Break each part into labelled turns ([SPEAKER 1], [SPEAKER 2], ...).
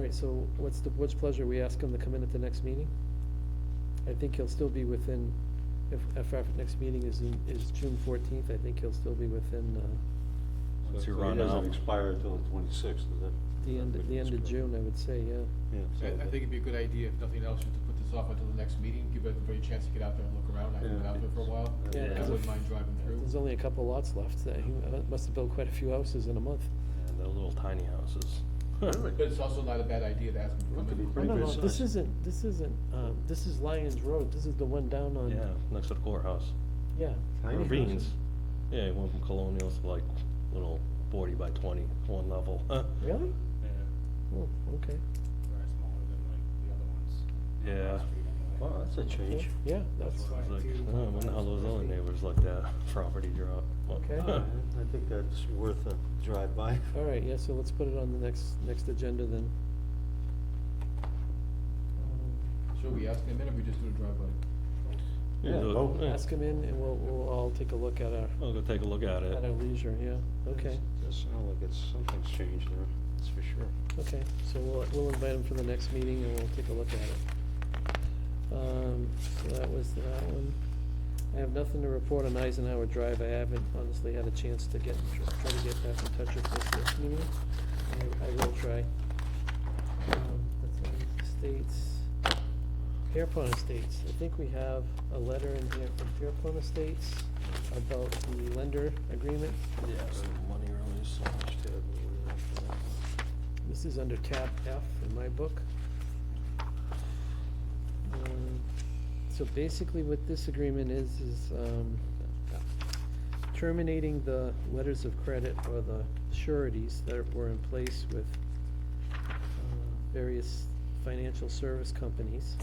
[SPEAKER 1] right, so what's the board's pleasure? We ask him to come in at the next meeting? I think he'll still be within, if, if our next meeting is in, is June fourteenth, I think he'll still be within, uh,
[SPEAKER 2] So
[SPEAKER 3] It's
[SPEAKER 2] it
[SPEAKER 3] around
[SPEAKER 2] doesn't
[SPEAKER 3] now.
[SPEAKER 2] expire until the twenty-sixth, is that?
[SPEAKER 1] the end, the end of June, I would say, yeah.
[SPEAKER 2] Yeah.
[SPEAKER 4] I, I think it'd be a good idea, if nothing else, just to put this off until the next meeting, give everybody a chance to get out there and look around, I haven't been
[SPEAKER 2] Yeah.
[SPEAKER 4] out there for a while.
[SPEAKER 2] Yeah,
[SPEAKER 4] I
[SPEAKER 1] as a-
[SPEAKER 4] wouldn't mind driving through.
[SPEAKER 1] There's only a couple lots left, that he uh, must have built quite a few houses in a month.
[SPEAKER 3] And they're little tiny houses.
[SPEAKER 4] But it's also not a bad idea to ask them
[SPEAKER 2] Look,
[SPEAKER 4] to
[SPEAKER 2] it'd be
[SPEAKER 4] come
[SPEAKER 1] Oh,
[SPEAKER 2] pretty
[SPEAKER 4] in.
[SPEAKER 1] no,
[SPEAKER 2] good
[SPEAKER 1] no,
[SPEAKER 2] size.
[SPEAKER 1] this isn't, this isn't, um, this is Lyons Road, this is the one down on.
[SPEAKER 3] Yeah, next to the courthouse.
[SPEAKER 1] Yeah.
[SPEAKER 2] Tiny
[SPEAKER 3] Or Beans.
[SPEAKER 2] houses.
[SPEAKER 3] Yeah, it went from colonials to like little forty by twenty, one level.
[SPEAKER 1] Really?
[SPEAKER 5] Yeah,
[SPEAKER 1] Oh, okay.
[SPEAKER 5] they're smaller than like the other ones. on
[SPEAKER 3] Yeah.
[SPEAKER 5] Wall Street anyway.
[SPEAKER 2] Wow, that's a change.
[SPEAKER 1] Yeah, that's,
[SPEAKER 3] It's like,
[SPEAKER 5] Two
[SPEAKER 3] I don't know how those other neighbors let that property drop.
[SPEAKER 1] Okay.
[SPEAKER 2] Yeah, I think that's worth a drive-by.
[SPEAKER 1] all right, yeah, so let's put it on the next, next agenda then.
[SPEAKER 4] Should we ask them in, or we just do a drive-by?
[SPEAKER 2] Yeah,
[SPEAKER 3] Look,
[SPEAKER 2] vote.
[SPEAKER 3] yeah.
[SPEAKER 1] Ask him in and we'll, we'll all take a look at our,
[SPEAKER 3] I'll go take a look at
[SPEAKER 1] at our
[SPEAKER 3] it.
[SPEAKER 1] leisure, yeah, okay,
[SPEAKER 2] Does sound like it's, something's changed there, that's for sure.
[SPEAKER 1] okay. So we'll, we'll invite him for the next meeting and we'll take a look at it. Um, so that was that one. I have nothing to report on Eisenhower Drive, I haven't honestly had a chance to get, try to get back in touch with this this meeting. I, I will try. Um, That's all the states. Pierpont Estates, I think we have a letter in here from Pierpont Estates about the lender agreement.
[SPEAKER 3] Yeah, so money really is so much to it.
[SPEAKER 1] This is under tab F in my book. Um, So basically what this agreement is, is um, terminating the letters of credit or the sureties that were in place with uh, various financial service companies,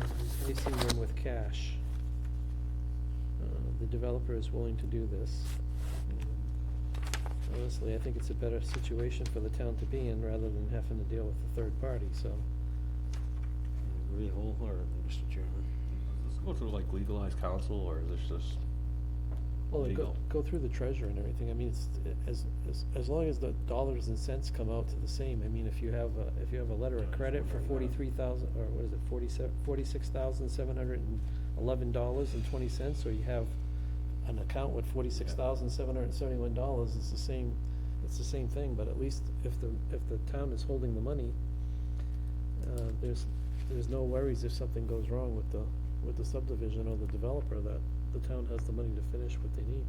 [SPEAKER 1] and replacing them with cash. Uh, The developer is willing to do this. Honestly, I think it's a better situation for the town to be in rather than having to deal with the third party, so.
[SPEAKER 2] I Agree wholeheartedly, Mr. Chairman.
[SPEAKER 3] Does this go through like legalized counsel or is this just
[SPEAKER 1] Well, it go,
[SPEAKER 3] legal?
[SPEAKER 1] go through the treasurer and everything, I mean, it's, as, as, as long as the dollars and cents come out to the same, I mean, if you have a, if you have a letter of
[SPEAKER 3] Yeah, I was
[SPEAKER 1] credit for
[SPEAKER 3] wondering that.
[SPEAKER 1] forty-three thousand, or what is it, forty-seven, forty-six thousand, seven hundred and eleven dollars and twenty cents, or you have an account with forty-six thousand, seven hundred and seventy-one dollars, it's the same, it's the same thing, but at least if the, if the town is holding the money, uh, there's, there's no worries if something goes wrong with the, with the subdivision or the developer, that the town has the money to finish what they need.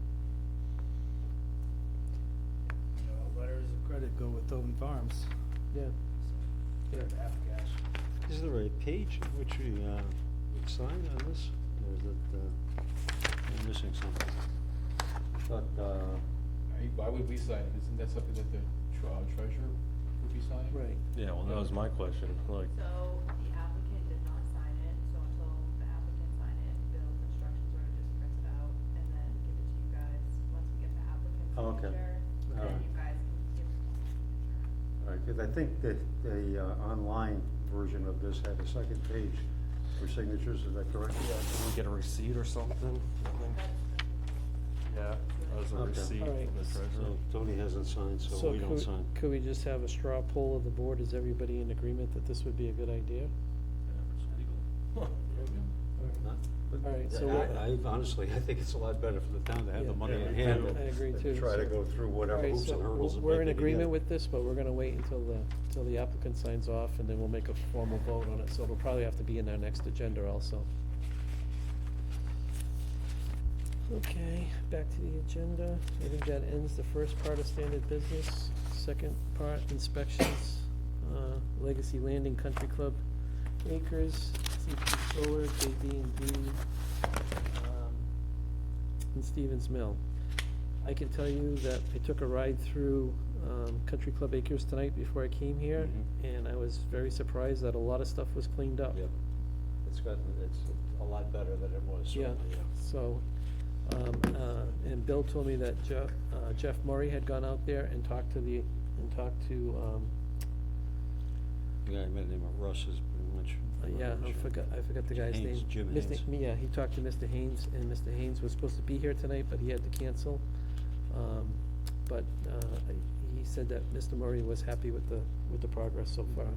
[SPEAKER 6] you know, letters of credit go with Tobin Farms.
[SPEAKER 1] Yeah,
[SPEAKER 6] They're half cash.
[SPEAKER 2] Is there a page in which we, uh, would sign on this, or is it, uh, I'm missing something? I thought, uh,
[SPEAKER 4] I- Why would we sign it? Isn't that something that the tr- uh, treasurer would be signing?
[SPEAKER 1] right.
[SPEAKER 3] Yeah, well, that was my question, like,
[SPEAKER 7] So the applicant did not sign it, so until the applicant sign it, Bill's instructions were to just print it out and then give it to you guys. Once we get the applicant's
[SPEAKER 2] Oh, okay.
[SPEAKER 7] signature, then
[SPEAKER 2] Alright.
[SPEAKER 7] you guys can give it to the signature.
[SPEAKER 2] all right, 'cause I think that the, uh, online version of this had a second page for signatures, is that correct?
[SPEAKER 3] can we get a receipt or something? Yeah, as a
[SPEAKER 2] Okay.
[SPEAKER 3] receipt
[SPEAKER 1] Alright.
[SPEAKER 3] from the treasurer.
[SPEAKER 2] So Tony hasn't signed, so
[SPEAKER 1] So
[SPEAKER 2] we don't
[SPEAKER 1] could-
[SPEAKER 2] sign.
[SPEAKER 1] Could we just have a straw poll of the board? Is everybody in agreement that this would be a good idea?
[SPEAKER 2] Not- but
[SPEAKER 1] All right,
[SPEAKER 2] I-
[SPEAKER 1] so what-
[SPEAKER 2] I, I honestly, I think it's a lot better for the town to have
[SPEAKER 1] Yeah.
[SPEAKER 2] the money in
[SPEAKER 3] Yeah, I
[SPEAKER 2] hand.
[SPEAKER 3] agree.
[SPEAKER 2] than-
[SPEAKER 3] I
[SPEAKER 1] agree
[SPEAKER 2] than
[SPEAKER 1] too,
[SPEAKER 2] Try to
[SPEAKER 1] so-
[SPEAKER 2] go through whatever
[SPEAKER 1] Alright,
[SPEAKER 2] hoops
[SPEAKER 1] so
[SPEAKER 2] and
[SPEAKER 1] w-
[SPEAKER 2] hurdles. it
[SPEAKER 1] We're
[SPEAKER 2] might
[SPEAKER 1] in
[SPEAKER 2] be to get
[SPEAKER 1] agreement
[SPEAKER 2] it.
[SPEAKER 1] with this, but we're gonna wait until the, until the applicant signs off, and then we'll make a formal vote on it, so it'll probably have to be in our next agenda also. Okay, back to the agenda. I think that ends the first part of standard business. Second part, inspections, uh, Legacy Landing Country Club Acres, CP Solar, JD and D, um, and Stevens Mill. I can tell you that I took a ride through um, Country Club Acres tonight before I came here, and I was very surprised that a lot of stuff was cleaned up.
[SPEAKER 2] Mm-hmm. Yep. It's gotten, it's a lot better than it was,
[SPEAKER 1] Yeah,
[SPEAKER 2] certainly, yeah.
[SPEAKER 1] so, um, uh, and Bill told me that Jeff, uh, Jeff Murray had gone out there and talked to the, and talked to, um,
[SPEAKER 2] The guy by the name of Russ is pretty much.
[SPEAKER 1] uh, yeah, I forgot, I forgot the guy's name.
[SPEAKER 2] Haynes, Jim
[SPEAKER 1] Mr.
[SPEAKER 2] Haynes.
[SPEAKER 1] Yeah, he talked to Mr. Haynes, and Mr. Haynes was supposed to be here tonight, but he had to cancel. Um, but, uh, he said that Mr. Murray was happy with the, with the progress so far,